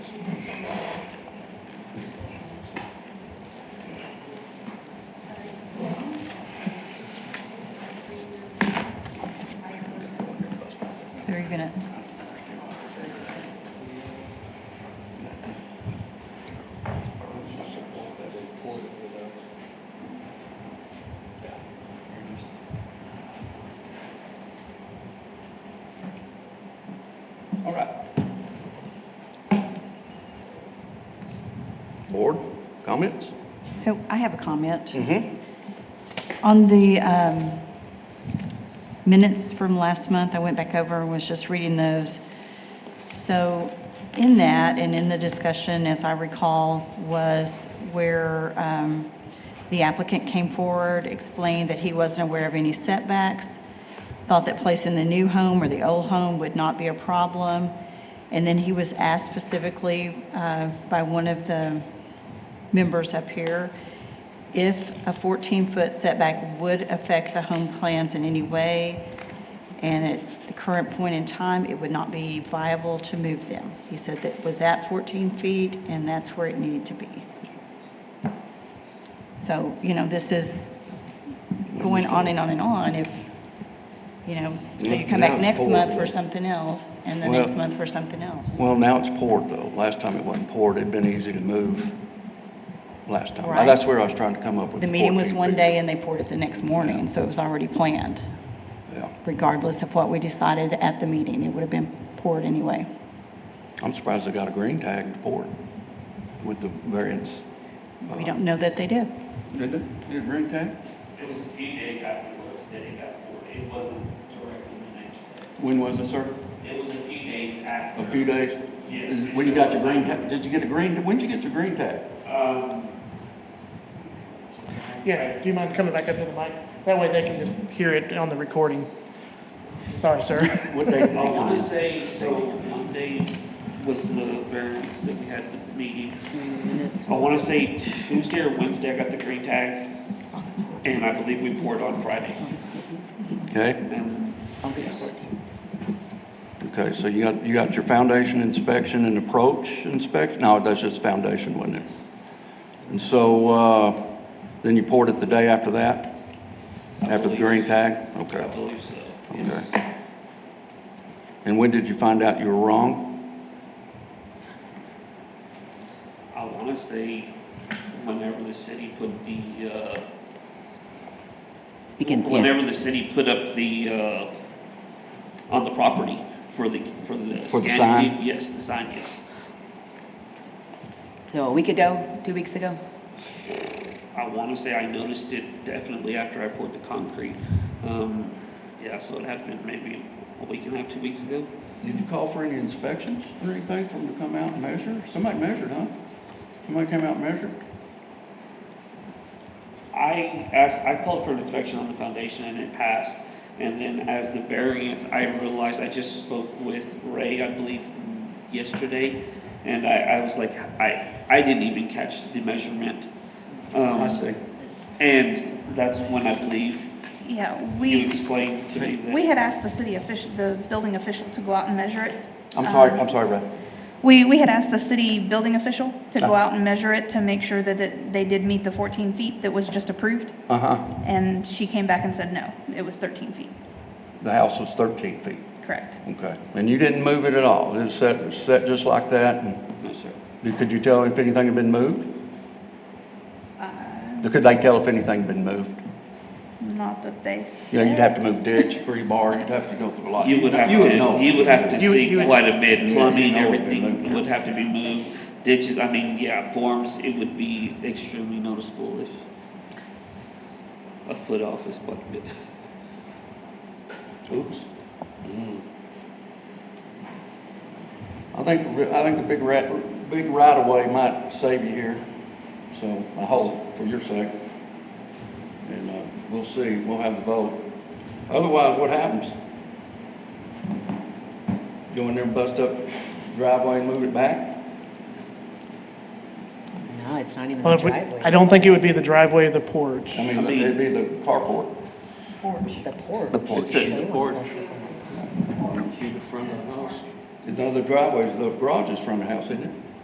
So are you gonna? All right. Board, comments? So I have a comment Mm-hmm. on the um, minutes from last month. I went back over and was just reading those. So in that and in the discussion, as I recall, was where um, the applicant came forward, explained that he wasn't aware of any setbacks, thought that placing the new home or the old home would not be a problem. And then he was asked specifically uh, by one of the members up here if a 14-foot setback would affect the home plans in any way, and at the current point in time, it would not be viable to move them. He said that was at 14 feet, and that's where it needed to be. So, you know, this is going on and on and on if, you know, so you come Yeah, back it's next month for horrible. something else, and the Well- next month for something else. Well, now it's poured though. Last time it wasn't poured. It'd been easy to move last time. Right. That's where I was trying to come up with. The meeting was 14 one feet. day, and they poured it the next morning, so it was already planned. Yeah. regardless of what we decided at the meeting. It would have been poured anyway. I'm surprised they got a green tag to pour it with the variance. We don't know that they did. Did it? Did it green tag? It was a few days afterwards that it got poured. It wasn't directly the next day. When was it, sir? It was a few days after. A few days? Yes. Is- When you got your green tag, did you get a green, when'd you get your green tag? Um, Yeah, do you mind coming back up to the mic? That way they can just hear it on the recording. Sorry, sir. What day? did I you get want it? to say, so Monday was the variance that we had the meeting. I want to say Tuesday or Wednesday, I got the green tag, and I believe we poured on Friday. Okay, And okay, so you got, you got your foundation inspection and approach inspection, no, that's just foundation, wasn't it? And so, uh, then you poured it the day after that? I After the believe- green tag? I Okay, believe so. yes. okay. And when did you find out you were wrong? I want to say whenever the city put the, uh, Begin, yeah. whenever the city put up the, uh, on the property for the, for the. For the scanning, sign? Yes, the sign, yes. So a week ago, two weeks ago? I want to say I noticed it definitely after I poured the concrete. Um, yeah, so it happened maybe a week and a half, two weeks ago. Did you call for any inspections or anything for them to come out and measure? Somebody measured, huh? Somebody came out and measured? I asked, I called for an inspection on the foundation and it passed. And then as the variance, I realized, I just spoke with Ray, I believe, yesterday. And I, I was like, I, I didn't even catch the measurement. I Um, see. and that's when I believe Yeah, you we, explained to me that. we had asked the city official, the building official to go out and measure it. I'm sorry, Um, I'm sorry, Brad. We, we had asked the city building official to go Uh. out and measure it to make sure that it- they did meet the 14 feet that was just approved. Uh-huh. And she came back and said, no, it was 13 feet, The house was 13 feet. correct. Okay, and you didn't move it at all? It was set, set just like that? And No, sir. did- could you tell if anything had been moved? Uh, Could they tell if anything had been moved? Not that they said. You know, you'd have to move ditch, rebar, you'd have to go through a lot. You would have to, know. you would have to You- see you would- quite a bit, Yeah, you plumbing, know it'd be everything moved. would have to be moved, ditches, I mean, yeah, forms, it would be extremely noticeable if a foot off is quite a bit. Oops. Mm. I think, the ri- I think the big rat, big right of way might save you here, so I hope for your sake. And, uh, we'll see, we'll have the vote. Otherwise, what happens? Go in there and bust up driveway and move it back? No, it's not even Well, the it would- I driveway. don't think it would be the driveway of the porch. I mean, it'd be the carport. The porch. The porch. They wouldn't The porch. post it on that. the front of the house. None of the driveways, the garage is front of the house, isn't it?